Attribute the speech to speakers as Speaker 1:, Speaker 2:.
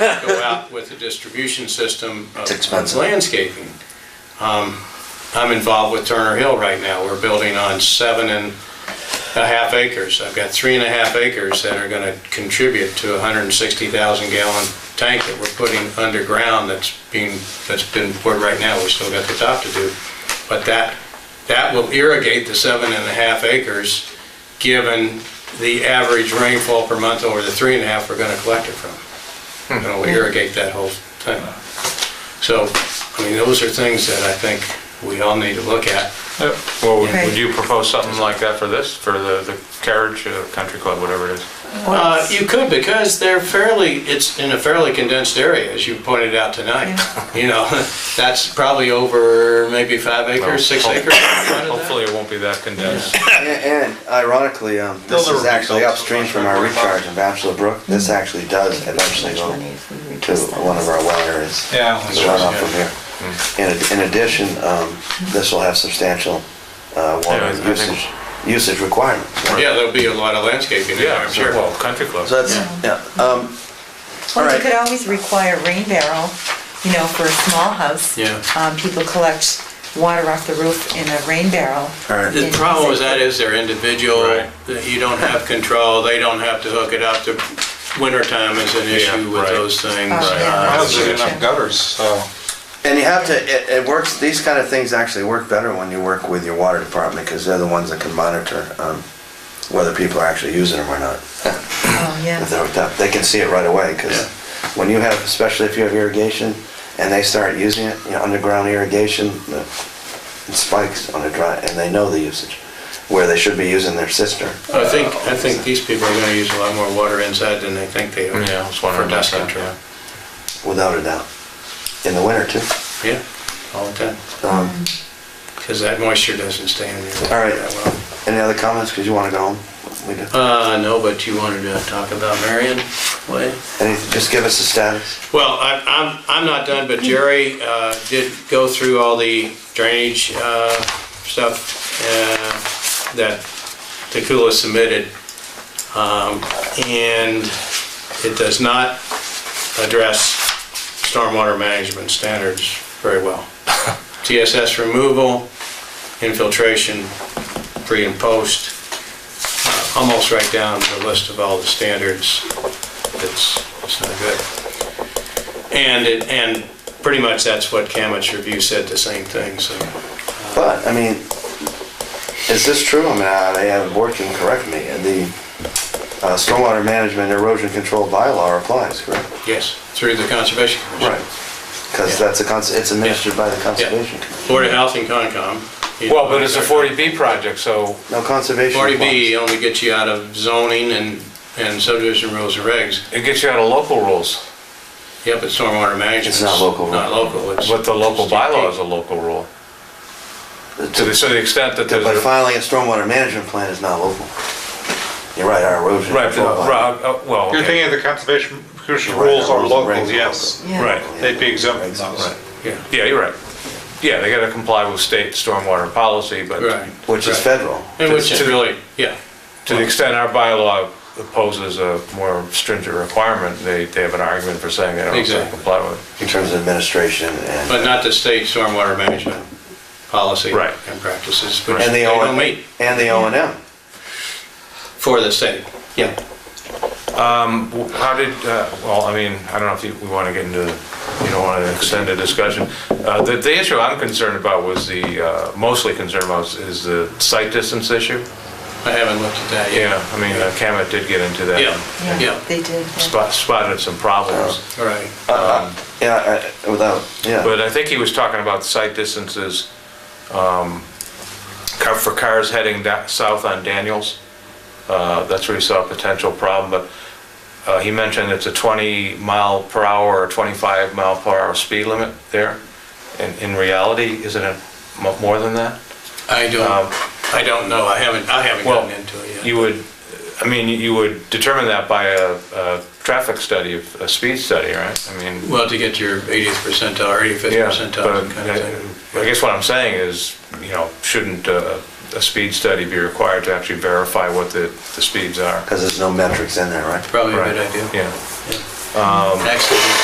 Speaker 1: go out with a distribution system of
Speaker 2: It's expensive.
Speaker 1: landscaping. Um, I'm involved with Turner Hill right now. We're building on seven and a half acres. I've got three and a half acres that are going to contribute to a 160,000 gallon tank that we're putting underground that's being, that's been poured right now. We still got the top to do. But that, that will irrigate the seven and a half acres, given the average rainfall per month over the three and a half we're going to collect it from. And it'll irrigate that whole thing. So, I mean, those are things that I think we all need to look at.
Speaker 3: Yeah, Uh, Well, would-
Speaker 4: Right.
Speaker 3: would you propose something like that for this, for the the carriage, uh, country club, whatever it is?
Speaker 1: Uh, You could, because they're fairly, it's in a fairly condensed area, as you pointed out tonight. You know, that's probably over maybe five acres, six
Speaker 3: Well,
Speaker 1: acres. something like that.
Speaker 3: Hopefully it won't be that condensed.
Speaker 2: And and ironically, um, this
Speaker 3: They'll
Speaker 2: is
Speaker 3: never
Speaker 2: actually
Speaker 3: rebuild
Speaker 2: upstream
Speaker 3: so
Speaker 2: from
Speaker 3: much,
Speaker 2: our
Speaker 3: right?
Speaker 2: recharge in Bachelor Brook. This actually does eventually go to one of our well areas.
Speaker 3: Yeah.
Speaker 2: It's run off from
Speaker 3: Mm.
Speaker 2: here. In, in addition, um, this will have substantial, uh,
Speaker 3: Yeah,
Speaker 2: water
Speaker 3: I think-
Speaker 2: usage, usage requirements.
Speaker 1: Yeah, there'll be a lot of landscaping there,
Speaker 3: Yeah,
Speaker 1: I'm sure.
Speaker 3: sure, well, country club.
Speaker 2: So that's, yeah, um, all
Speaker 4: Well, you
Speaker 2: right.
Speaker 4: could always require rain barrel, you know, for a small house.
Speaker 1: Yeah.
Speaker 4: Um, people collect water off the roof in a rain barrel.
Speaker 2: All right.
Speaker 1: The problem with that is they're individual,
Speaker 3: Right.
Speaker 1: that you don't have control, they don't have to hook it up. The Wintertime is an issue with
Speaker 3: right.
Speaker 1: those things.
Speaker 4: Oh, yeah.
Speaker 1: Uh,
Speaker 5: I don't
Speaker 4: That's
Speaker 5: see
Speaker 4: true.
Speaker 5: enough gutters, so.
Speaker 2: And you have to, it, it works, these kind of things actually work better when you work with your water department, because they're the ones that can monitor, um, whether people are actually using them or not.
Speaker 4: Oh, yeah.
Speaker 2: If they're hooked up, they can see it right away, because when you have, especially if you have irrigation, and they start using it, you know, underground irrigation, the- it spikes on a dry, and they know the usage, where they should be using their cistern.
Speaker 1: I think, I think these people are gonna use a lot more water inside than they think they are.
Speaker 3: Yeah, I was wondering
Speaker 1: For dust
Speaker 3: about that,
Speaker 1: control.
Speaker 2: Without a doubt. In the winter too.
Speaker 1: Yeah, all the time,
Speaker 2: Um,
Speaker 1: because that moisture doesn't stay in there.
Speaker 2: All right.
Speaker 1: that well.
Speaker 2: Any other comments? Because you want to go home. We do.
Speaker 1: Uh, no, but you wanted to talk about Marion Way?
Speaker 2: Any, just give us the status.
Speaker 1: Well, I- I'm, I'm not done, but Jerry uh, did go through all the drainage uh, stuff uh, that Takula submitted. Um, And it does not address stormwater management standards very well. TSS removal, infiltration, pre and post, uh, almost right down the list of all the standards. It's, it's not good. And, it- and pretty much that's what Camet's review said, the same thing, so.
Speaker 2: But I mean, is this true? I mean, I, I have the board can correct me. The uh, stormwater management erosion control bylaw applies, correct?
Speaker 1: Yes, through the Conservation Commission.
Speaker 2: Because
Speaker 1: Yeah.
Speaker 2: that's a cons. It's administered by the conservation. Commission.
Speaker 1: Board of Health and Concom.
Speaker 3: Well, but it's a 40B project, so
Speaker 2: No conservation.
Speaker 1: Forty B
Speaker 2: applies.
Speaker 1: only gets you out of zoning and, and subdivision rules and regs.
Speaker 3: it gets you out of local rules,
Speaker 1: Yeah, but stormwater management.
Speaker 2: It's not local, right?
Speaker 1: Not local. it's-
Speaker 3: but the local
Speaker 1: it's DP.
Speaker 3: bylaw is a local rule. To the,
Speaker 2: It's-
Speaker 3: so the extent that there's,
Speaker 2: But
Speaker 3: a-
Speaker 2: filing a stormwater management plan is not local. You're right. Our erosion
Speaker 3: right,
Speaker 2: control bylaw.
Speaker 3: right, uh, well,
Speaker 5: You're
Speaker 3: okay.
Speaker 5: thinking of the conservation commission
Speaker 2: Right,
Speaker 5: rules are
Speaker 2: rules and regs
Speaker 5: local,
Speaker 2: are
Speaker 5: yes.
Speaker 4: Yeah.
Speaker 3: right,
Speaker 5: They'd be exempt from
Speaker 2: Right.
Speaker 5: those.
Speaker 1: Yeah,
Speaker 3: yeah, you're right. Yeah, they gotta comply with state stormwater policy, but
Speaker 1: right.
Speaker 2: Which is
Speaker 1: right.
Speaker 2: federal.
Speaker 1: And which is
Speaker 3: to-
Speaker 1: really, yeah,
Speaker 3: to the extent our bylaw opposes a more stringent requirement, they, they have an argument for saying they don't have to
Speaker 1: Exactly.
Speaker 3: comply with
Speaker 2: in terms of administration and.
Speaker 1: but not the state stormwater management policy.
Speaker 3: Right.
Speaker 1: And practices, which
Speaker 2: and
Speaker 1: they
Speaker 2: the O
Speaker 1: don't
Speaker 2: and
Speaker 1: meet
Speaker 2: And the O and M.
Speaker 1: for the state. Yeah.
Speaker 3: it. How did, uh, well, I mean, I don't know if you, we want to get into, you don't want to extend the discussion. Uh, The, the issue I'm concerned about was the, uh, mostly concerned about is- is the site distance issue.
Speaker 1: I haven't looked at that yet.
Speaker 3: Yeah, I mean, uh, Camet did get into that.
Speaker 1: Yeah, yeah,
Speaker 4: They did. yeah.
Speaker 3: Spot- Spotted some problems.
Speaker 1: all right.
Speaker 2: Yeah, I- without, yeah.
Speaker 3: But I think he was talking about site distances um, car- for cars heading da- south on Daniels. Uh, That's where he saw a potential problem, but uh, he mentioned it's a 20 mile per hour or 25 mile per hour speed limit there. And in reality, isn't it mo- more than that?
Speaker 1: I
Speaker 3: Um,
Speaker 1: don't, I don't know, I haven't, I haven't
Speaker 3: Well,
Speaker 1: gotten into it yet.
Speaker 3: you would, I mean, you would determine that by a a traffic study, a speed study, right? I mean.
Speaker 1: Well, to get your 80th percentile or 85th
Speaker 3: Yeah,
Speaker 1: percentile,
Speaker 3: but
Speaker 1: kind of thing.
Speaker 3: I I guess what I'm saying is, you know, shouldn't uh, a speed study be required to actually verify what the, the speeds are?
Speaker 2: Because there's no metrics in there, right?
Speaker 1: Probably a
Speaker 3: Right.
Speaker 1: good idea.
Speaker 3: Yeah.
Speaker 1: Yeah. Actually,